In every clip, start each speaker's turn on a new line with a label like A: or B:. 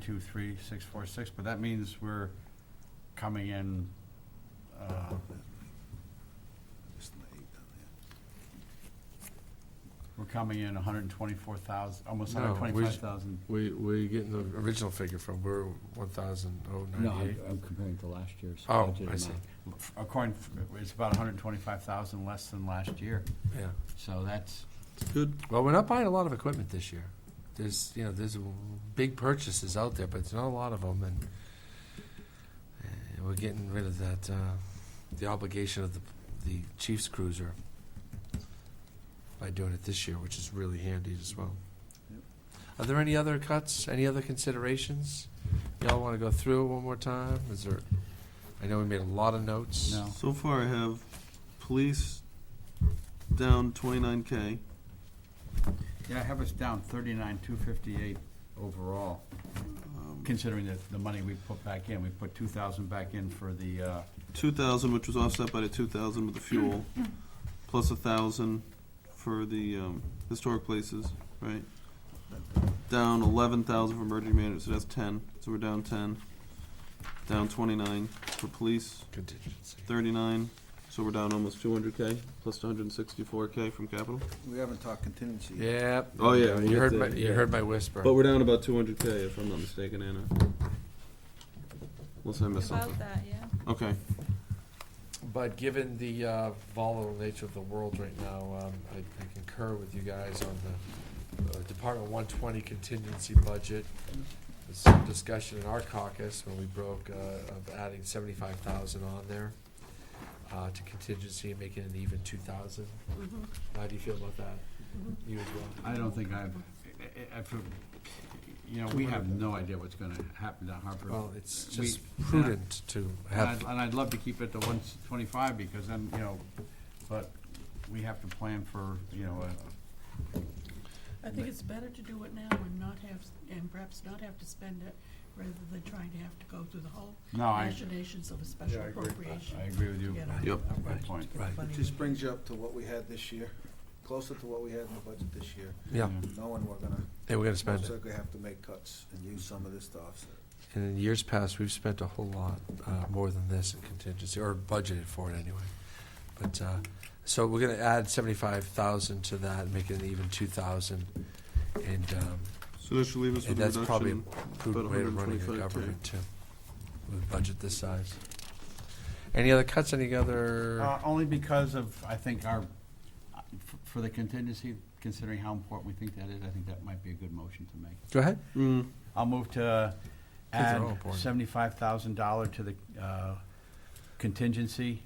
A: two three six four six, but that means we're coming in, uh,
B: Just an eight down there.
A: we're coming in hundred and twenty-four thousand, almost
C: No, we
A: hundred
C: s-
A: and twenty-five thousand.
C: We, where you getting the original figure from? We're one thousand oh
D: No,
C: ninety-eight.
D: I'm I'm comparing to last year's.
C: Oh,
D: budget
C: I see.
D: amount.
A: According, it's about hundred and twenty-five thousand less than last year,
C: Yeah.
A: so that's,
E: Good.
C: Well, we're not buying a lot of equipment this year. There's, you know, there's big purchases out there, but there's not a lot of them, and uh, we're getting rid of that, uh, the obligation of the, the Chiefs cruiser by doing it this year, which is really handy as well.
A: Yep.
C: Are there any other cuts, any other considerations? Y'all wanna go through it one more time? Is there, I know we made a lot of notes.
A: no.
E: So far, I have police down 29K.
A: Yeah, I have us down thirty-nine, two fifty-eight overall,
E: Um,
A: considering that the money we put back in, we put two thousand back in for the, uh,
E: 2,000, which was offset by the 2,000 with the fuel, plus 1,000 for the um, historic places, right? Down 11,000 for emergency management, so that's 10. So we're down 10. Down 29 for police,
C: Contingency.
E: 39. So we're down almost 200K, plus 164K from capital.
B: We haven't talked contingency. yet.
C: Yep.
E: Oh, yeah, we
C: You
E: get
C: heard
E: the-
C: my, you
E: yeah.
C: heard my whisper.
E: But we're down about 200K, if I'm not mistaken, Anna. Unless I missed something.
F: About that, yeah.
E: Okay.
C: But given the uh, volatile nature of the world right now, um, I I concur with you guys on the uh, Department 120 contingency budget. There's some discussion in our caucus when we broke uh, of adding 75,000 on there uh, to contingency and making it an even 2,000. How do you feel about that? You as well?
A: I don't think I've, I- I- I, feel- you know, we have no idea what's gonna happen to Harper.
C: Well, it's
A: We-
C: just prudent to
A: And I'd,
C: have,
A: and I'd love to keep it to one twenty-five, because then, you know, but we have to plan for, you know, a-
G: I think it's better to do it now and not have, and perhaps not have to spend it, rather than trying to have to go through the whole
A: no, I,
G: machinations of a special
A: Yeah, I agree.
G: appropriation.
A: I agree with you.
G: Yeah.
E: Yep.
A: Good point.
C: Right.
B: It just brings you up to what we had this year, closer to what we had in the budget this year,
C: yeah,
B: knowing we're gonna,
C: and we're going to spend
B: most
C: it.
B: likely have to make cuts and use some of this to offset.
C: And in years past, we've spent a whole lot uh, more than this in contingency, or budgeted for it anyway. But, uh, so we're going to add 75,000 to that, make it an even 2,000. And um,
E: So that should leave us
C: and
E: with a
C: that's probably a
E: reduction.
C: prudent
E: about
C: way of running a
E: 125K.
C: government, too, with a budget this size. Any other cuts, any other?
A: Uh, only because of, I think our, f- for the contingency, considering how important we think that is, I think that might be a good motion to make.
C: Go ahead.
E: Mm,
A: I'll move to
C: they're
A: add
C: all important.
A: seventy-five thousand dollar to the uh, contingency,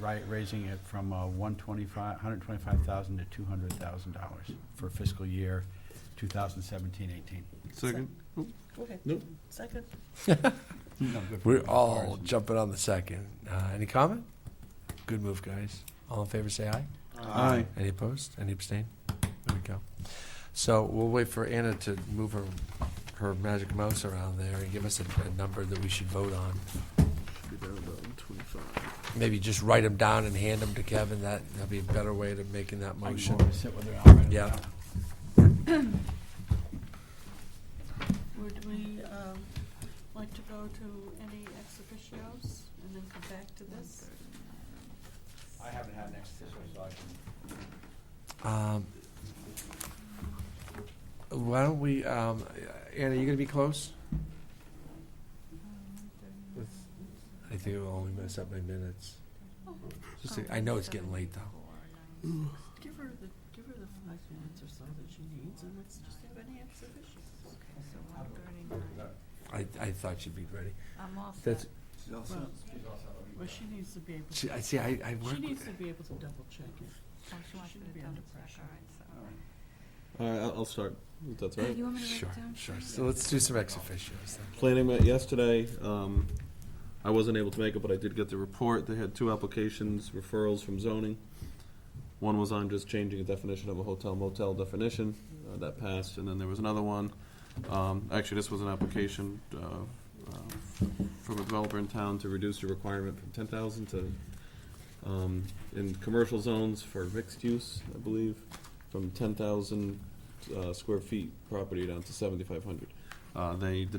A: right, raising it from uh, one twenty-five, hundred twenty-five thousand to two hundred thousand dollars for fiscal year 2017-18.
E: second.
G: Okay.
E: Nope.
G: Second.
A: No, good for
C: We're
A: the
C: all
A: comparison.
C: jumping on the second. Uh, Any comment? Good move, guys. All in favor, say aye.
E: Aye.
C: Any opposed? Any abstain? There we go. So we'll wait for Anna to move her, her magic mouse around there and give us a, a number that we should vote on.
E: Be down about 125.
C: Maybe just write them down and hand them to Kevin. That, that'd be a better way to making that
A: I can
C: motion.
A: go over and sit with her and I'll write it
C: Yeah.
A: down.
G: Would we, um, like to go to any ex officios and then come back to this?
A: I haven't had next official, so I can.
C: Um, Why don't we, um, Anna, you gonna be close? I think it'll only mess up my minutes. Just, I know it's getting late though.
G: Give her the, give her the five minutes or so that she needs, and let's just have any ex officios.
C: I, I thought she'd be ready.
F: I'm all set.
C: That's,
B: She's all set.
G: Well, well, she needs to be able,
C: she- I see, I, I work with
G: she needs to be able to double check it.
F: Oh, she wants
G: She
F: me
G: should
F: to
G: be
F: double
G: under
F: check,
G: pressure.
F: all
E: All right, I'll, I'll start. if that's all
F: right, so.
E: right.
F: You want me to write
C: Sure,
F: it down?
C: sure. So let's do some ex officios then.
E: Planning met yesterday. Um, I wasn't able to make it, but I did get the report. They had two applications, referrals from zoning. One was on just changing a definition of a hotel motel definition. Uh, that passed. And then there was another one. Um, actually, this was an application uh, uh, from a developer in town to reduce the requirement from 10,000 to um, in commercial zones for mixed use, I believe, from 10,000 uh, square feet property down to 7,500. Uh, They, the